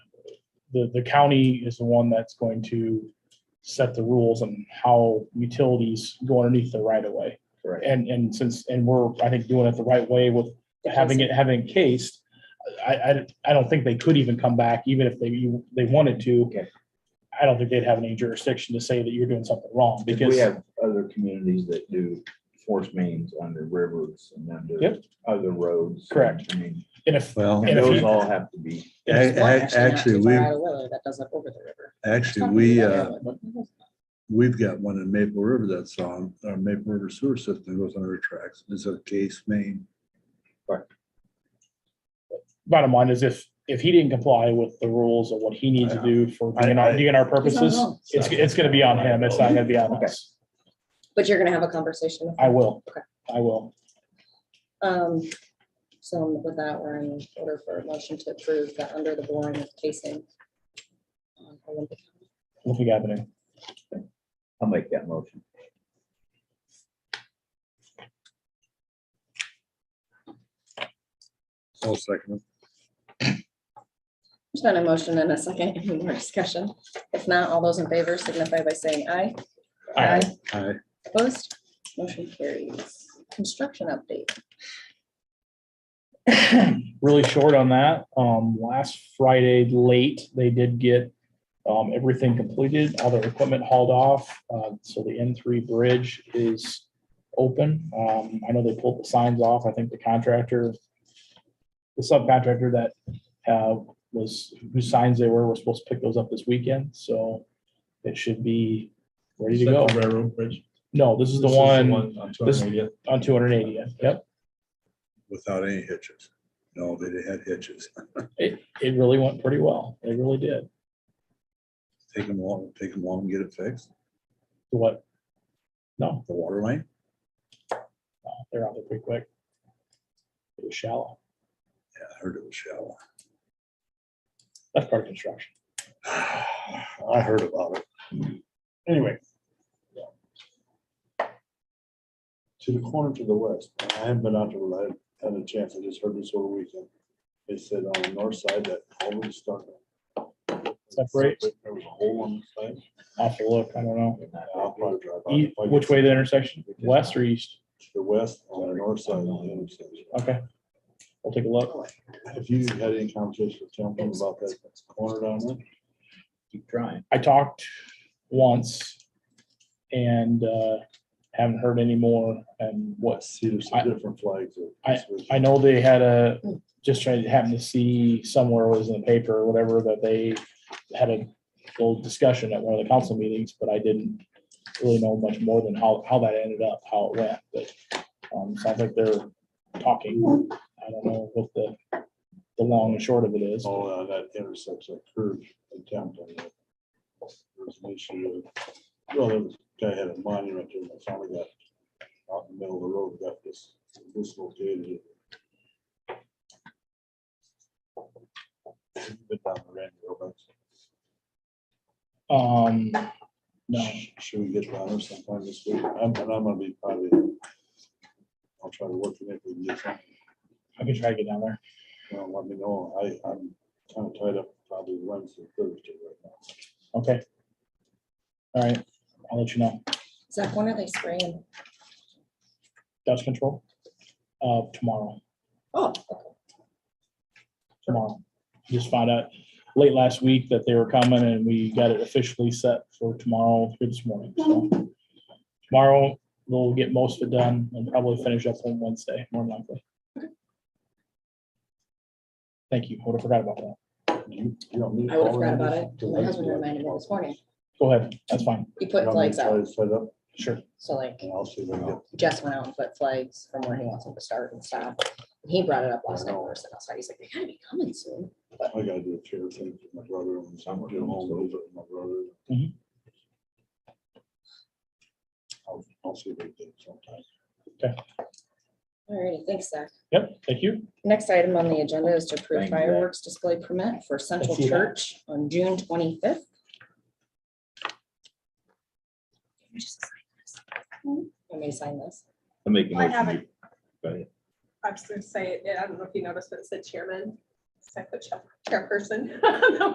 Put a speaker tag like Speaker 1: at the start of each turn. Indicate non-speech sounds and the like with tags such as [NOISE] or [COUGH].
Speaker 1: the, the county is the one that's going to set the rules on how utilities go underneath the right of way.
Speaker 2: Correct.
Speaker 1: And, and since, and we're, I think, doing it the right way with having it, having it cased, I, I, I don't think they could even come back, even if they, they wanted to.
Speaker 2: Okay.
Speaker 1: I don't think they'd have any jurisdiction to say that you're doing something wrong
Speaker 2: Because
Speaker 1: because.
Speaker 2: we have other communities that do force mains on their rivers and under
Speaker 1: Yep.
Speaker 2: other roads.
Speaker 1: Correct.
Speaker 2: I mean,
Speaker 1: And if,
Speaker 3: Well,
Speaker 1: And
Speaker 2: and
Speaker 1: if
Speaker 2: those
Speaker 1: you-
Speaker 2: all have to be,
Speaker 3: a- a- actually, we,
Speaker 4: That does it over the river.
Speaker 3: actually, we, uh, we've got one in Maple River that's on, our Maple River sewer system goes under tracks. It's a case main.
Speaker 1: bottom line is if, if he didn't comply with the rules of what he needs to do for
Speaker 3: I-
Speaker 1: DNR,
Speaker 3: I-
Speaker 1: DNR purposes,
Speaker 4: know.
Speaker 1: it's, it's gonna be on him. It's not gonna be on us.
Speaker 4: But you're gonna have a conversation. with
Speaker 1: I
Speaker 4: them.
Speaker 1: will.
Speaker 4: Okay.
Speaker 1: I will.
Speaker 4: Um, so with that, we're in order for a motion to approve the under the boring of casing. Um, on Olympic.
Speaker 1: Olympic Avenue.
Speaker 2: I'll make that motion.
Speaker 3: I'll second it.
Speaker 4: There's been a motion and a second, any more discussion? If not, all those in favor signify by saying aye.
Speaker 1: Aye.
Speaker 3: Aye.
Speaker 4: Opposed, motion carries. Construction update.
Speaker 1: Really short on that. Um, last Friday late, they did get um, everything completed, all their equipment hauled off. Uh, so the N three bridge is open. Um, I know they pulled the signs off. I think the contractor, the subcontractor that uh, was, whose signs they were, were supposed to pick those up this weekend. So it should be ready to go.
Speaker 5: Railroad Bridge.
Speaker 1: No, this is the one this- on two hundred and eightieth. Yep.
Speaker 3: Without any hitches. No, they didn't have hitches.
Speaker 1: It, it really went pretty well. It really did.
Speaker 3: Take them long, take them long, get it fixed.
Speaker 1: What? No,
Speaker 3: The water line.
Speaker 1: no, they're out there pretty quick. It was shallow.
Speaker 3: Yeah, I heard it was shallow. [SIGHS]
Speaker 1: That's part of construction.
Speaker 3: I heard about it.
Speaker 1: Anyway,
Speaker 6: to the corner to the west. I haven't been out there, but I had a chance. I just heard this over the weekend. They said on the north side that all of it's done.
Speaker 1: Separate?
Speaker 6: There was a hole on the side.
Speaker 1: I'll have to look. I don't know.
Speaker 6: I'll probably drive by.
Speaker 1: E- Which way the intersection? West or east?
Speaker 6: To the west, on the north side of the intersection.
Speaker 1: Okay. We'll take a look.
Speaker 6: Have you had any conversation with Temple about that corner down there?
Speaker 2: Keep trying.
Speaker 1: I talked once and, uh, haven't heard any more. And what,
Speaker 6: See, there's some different flags. that-
Speaker 1: I know they had a, just trying to happen to see somewhere was in the paper or whatever that they had a little discussion at one of the council meetings, but I didn't really know much more than how, how that ended up, how it went, but um, sounds like they're talking. I don't know what the, the long and short of it is.
Speaker 6: All on that intersection, that curve in Temple. There was an issue, of- well, there was, guy had a monument there, and finally got out in the middle of the road, got this, dislocated. Bit down the ramp, real bad.
Speaker 1: Um, no,
Speaker 6: Sh- Should we get down there sometime this week? I'm, and I'm gonna be probably, I'll try to work it if we can get something.
Speaker 1: I can try to get down there.
Speaker 6: You know, let me know. I, I'm kind of tied up probably Wednesday, Thursday right now.
Speaker 1: Okay. All right, I'll let you know.
Speaker 4: Zach, when are they spraying?
Speaker 1: Dust control, uh, tomorrow.
Speaker 4: Oh,
Speaker 1: tomorrow. Just found out late last week that they were coming and we got it officially set for tomorrow through this morning. So Tomorrow, we'll get most of it done and probably finish up on Wednesday, more than likely. Thank you. Would have forgot about that.
Speaker 6: You- you don't need
Speaker 4: I would have
Speaker 6: all
Speaker 4: forgot
Speaker 6: that
Speaker 4: about
Speaker 6: much
Speaker 4: it.
Speaker 6: to
Speaker 4: My
Speaker 6: wait
Speaker 4: husband
Speaker 6: for it.
Speaker 4: reminded me this morning.
Speaker 1: Go ahead. That's fine.
Speaker 4: He
Speaker 6: You
Speaker 4: put
Speaker 6: want me to
Speaker 4: flags
Speaker 6: try
Speaker 4: out,
Speaker 6: to Set up
Speaker 1: Sure.
Speaker 4: so like
Speaker 6: and I'll see what I
Speaker 3: Wow.
Speaker 6: get.
Speaker 4: Jess went out and put flags from where he wants them to start and stop. And He brought it up last night, when we were sitting outside, he's like, they gotta be coming soon.
Speaker 6: I gotta do a chair thing for my brother and some do home visit with my brother.
Speaker 1: Mhm.
Speaker 6: I'll, I'll see what I get sometime.
Speaker 4: All right, thanks, Zach.
Speaker 1: Yep. Thank you.
Speaker 4: Next item on the agenda is to approve
Speaker 2: Thank you, Zach.
Speaker 4: fireworks display permit for Central
Speaker 1: Thank you, Zach.
Speaker 4: Church on June twenty-fifth. Want me to sign this?
Speaker 2: I'm making.
Speaker 7: I haven't. I was gonna say, I don't know if you noticed, but it said chairman, so I put chair- chairperson. [LAUGHS]